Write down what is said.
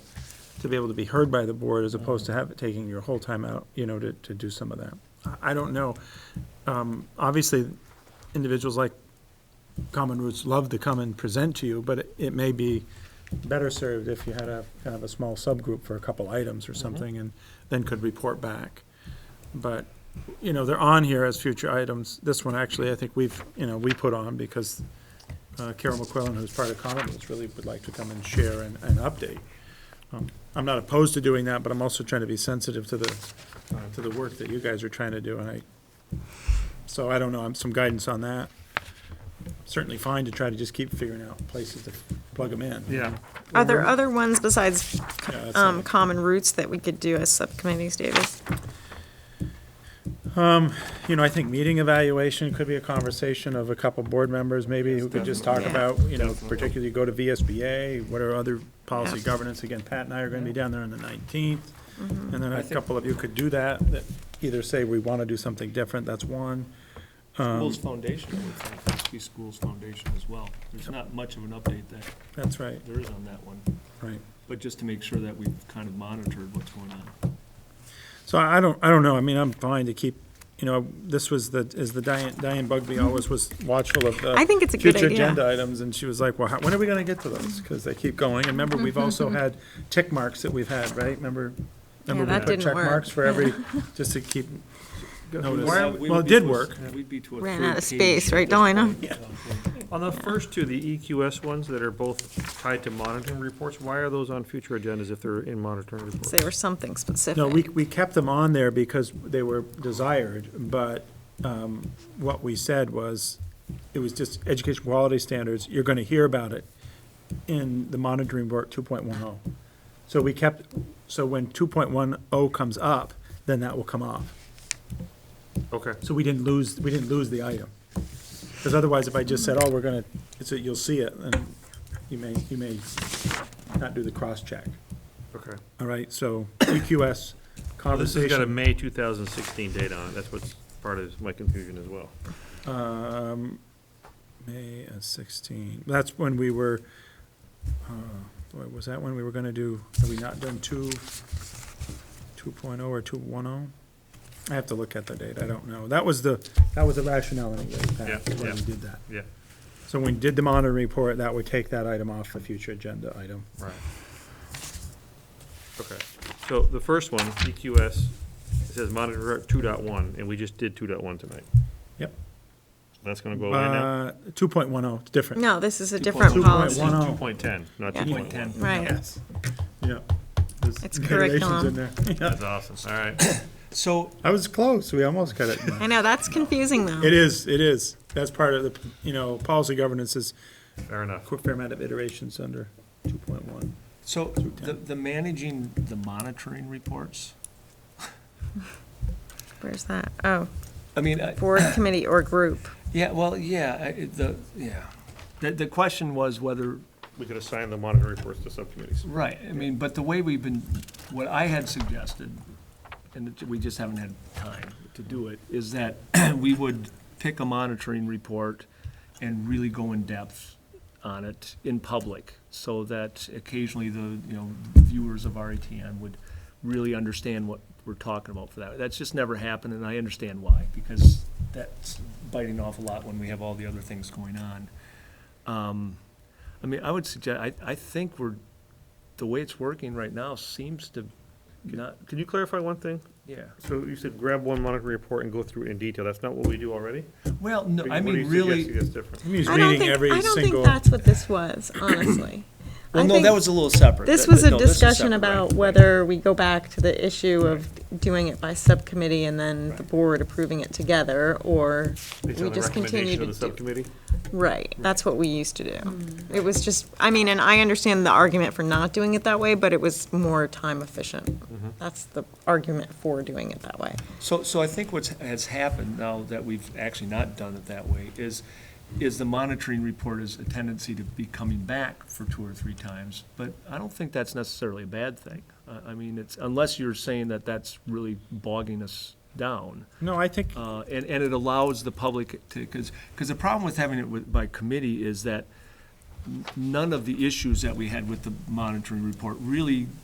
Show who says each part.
Speaker 1: to be able to be heard by the board as opposed to have it taking your whole time out, you know, to, to do some of that. I- I don't know. Um, obviously, individuals like Common Roots love to come and present to you, but it- it may be better served if you had a, kind of a small subgroup for a couple items or something and then could report back. But, you know, they're on here as future items. This one, actually, I think we've, you know, we put on because uh, Carol McQuillan, who's part of Common Roots, really would like to come and share and, and update. Um, I'm not opposed to doing that, but I'm also trying to be sensitive to the, uh, to the work that you guys are trying to do, and I, so I don't know, I'm some guidance on that. Certainly fine to try to just keep figuring out places to plug them in.
Speaker 2: Yeah.
Speaker 3: Are there other ones besides
Speaker 1: Yeah, that's
Speaker 3: um,
Speaker 1: it.
Speaker 3: common roots that we could do as subcommittees, Davis?
Speaker 1: You know, I think meeting evaluation could be a conversation of a couple board members, maybe, who could just talk about,
Speaker 3: definitely.
Speaker 1: you know, particularly go to VSBA, what are other policy
Speaker 3: Yeah.
Speaker 1: governance, again, Pat and I are gonna be down there on the nineteenth,
Speaker 3: Mm-hmm.
Speaker 1: and then a couple of you could do that, that either say we wanna do something different, that's one.
Speaker 2: School's foundation, I would think, must be school's foundation as well. There's not much of an update that
Speaker 1: That's right,
Speaker 2: there is on that one,
Speaker 1: right.
Speaker 2: but just to make sure that we've kind of monitored what's going on.
Speaker 1: So I I don't, I don't know, I mean, I'm fine to keep, you know, this was the, is the Diane, Diane Bugby always was watchful of the.
Speaker 3: I think it's a good
Speaker 1: Future
Speaker 3: idea.
Speaker 1: agenda items, and she was like, well, how- when are we gonna get to those? Because they keep going, and remember, we've also had tick marks that we've had, right, remember? remember
Speaker 3: Mm-hmm. Yeah,
Speaker 1: we
Speaker 3: that
Speaker 1: put
Speaker 3: didn't
Speaker 1: Check
Speaker 3: work.
Speaker 1: marks for every, just to keep
Speaker 2: Oh,
Speaker 1: notice.
Speaker 4: Why
Speaker 2: We
Speaker 1: Well,
Speaker 2: would
Speaker 1: it
Speaker 2: be
Speaker 1: did
Speaker 2: to a-
Speaker 1: work.
Speaker 2: We'd be to a
Speaker 3: Ran
Speaker 2: third
Speaker 3: out of
Speaker 2: page
Speaker 3: space,
Speaker 2: at
Speaker 3: right,
Speaker 2: this
Speaker 3: don't I know?
Speaker 2: point, so.
Speaker 4: On the first two, the EQS ones that are both tied to monitoring reports, why are those on future agendas if they're in monitoring reports?
Speaker 3: Say or something specific.
Speaker 1: No, we, we kept them on there because they were desired, but um, what we said was, it was just education quality standards, you're gonna hear about it in the monitoring report two point one oh. So we kept, so when two point one oh comes up, then that will come off.
Speaker 4: Okay,
Speaker 1: So we didn't lose, we didn't lose the item. Because otherwise, if I just said, oh, we're gonna, it's, a- you'll see it, and you may, you may not do the cross-check.
Speaker 4: okay.
Speaker 1: All right, so EQS
Speaker 4: This
Speaker 1: conversation.
Speaker 4: has got a May 2016 date on it, that's what's part of my confusion as well.
Speaker 1: Um, May of sixteen, that's when we were, uh, boy, was that when we were gonna do, have we not done two, two or two one oh? I have to look at the date, I don't know. That was the, that was the rationale anyway, Pat,
Speaker 4: Yeah,
Speaker 1: when we
Speaker 4: yeah.
Speaker 1: did that.
Speaker 4: Yeah.
Speaker 1: So when we did the monitoring report, that would take that item off the future agenda item.
Speaker 4: Right. Okay, so the first one, EQS, it says monitor 2.1, and we just did 2.1 tonight.
Speaker 1: Yep.
Speaker 4: That's gonna go away now?
Speaker 1: Uh, two point one oh, it's different.
Speaker 3: No, this is a
Speaker 2: Two
Speaker 3: different
Speaker 2: point-
Speaker 1: Two
Speaker 3: policy.
Speaker 1: point one oh,
Speaker 4: 2.10, not
Speaker 3: Yeah.
Speaker 4: 2.1.
Speaker 3: Right.
Speaker 1: yes, yeah. There's
Speaker 3: It's
Speaker 1: iterations
Speaker 3: curriculum.
Speaker 1: in there. Yeah.
Speaker 4: That's awesome, all right.
Speaker 2: So,
Speaker 1: I was close, we almost got it.
Speaker 3: I know, that's confusing though.
Speaker 1: It is, it is. That's part of the, you know, policy governance is
Speaker 4: Fair
Speaker 1: a
Speaker 4: enough.
Speaker 1: quick fair amount of iterations under two point one.
Speaker 2: so the, the managing the monitoring reports,
Speaker 3: Where's that? Oh,
Speaker 2: I mean, I-
Speaker 3: board, committee, or group.
Speaker 2: yeah, well, yeah, I- it- the, yeah. The, the question was whether
Speaker 4: We could assign the monitor reports to subcommittees.
Speaker 2: Right, I mean, but the way we've been, what I had suggested, and it- we just haven't had time to do it, is that we would pick a monitoring report and really go in depth on it in public, so that occasionally the, you know, viewers of RETN would really understand what we're talking about for that. That's just never happened, and I understand why, because that's biting off a lot when we have all the other things going on. Um, I mean, I would suggest, I, I think we're, the way it's working right now seems to not,
Speaker 4: Could you clarify one thing?
Speaker 2: yeah.
Speaker 4: So you said grab one monitoring report and go through in detail, that's not what we do already?
Speaker 2: Well, no,
Speaker 4: Or you-
Speaker 2: I
Speaker 4: what are
Speaker 2: mean,
Speaker 4: you suggesting
Speaker 2: really,
Speaker 4: that's different?
Speaker 1: He's
Speaker 3: I don't
Speaker 1: reading
Speaker 3: think, I
Speaker 1: every
Speaker 3: don't think
Speaker 1: single,
Speaker 3: that's what this was, honestly.
Speaker 2: well,
Speaker 3: I
Speaker 2: no,
Speaker 3: think
Speaker 2: that was a little separate.
Speaker 3: This
Speaker 2: That-
Speaker 3: was a
Speaker 2: no, this is
Speaker 3: discussion
Speaker 2: separate,
Speaker 3: about
Speaker 2: right.
Speaker 3: whether we go back to the issue of doing it by subcommittee and then the
Speaker 2: Right.
Speaker 3: board approving it together, or we
Speaker 4: Based on the
Speaker 3: just continue
Speaker 4: recommendation
Speaker 3: to
Speaker 4: of
Speaker 3: do.
Speaker 4: the subcommittee?
Speaker 3: Right, that's what we used to do. It was just, I mean, and I understand the argument for not doing it that way, but it was more time efficient. That's the argument for doing it that way.
Speaker 2: So, so I think what's, has happened now that we've actually not done it that way is, is the monitoring report is a tendency to be coming back for two or three times, but I don't think that's necessarily a bad thing. I, I mean, it's, unless you're saying that that's really bogging us down.
Speaker 1: no, I think,
Speaker 2: Uh, and, and it allows the public to, because, because the problem with having it with, by committee is that n- none of the issues that we had with the monitoring report really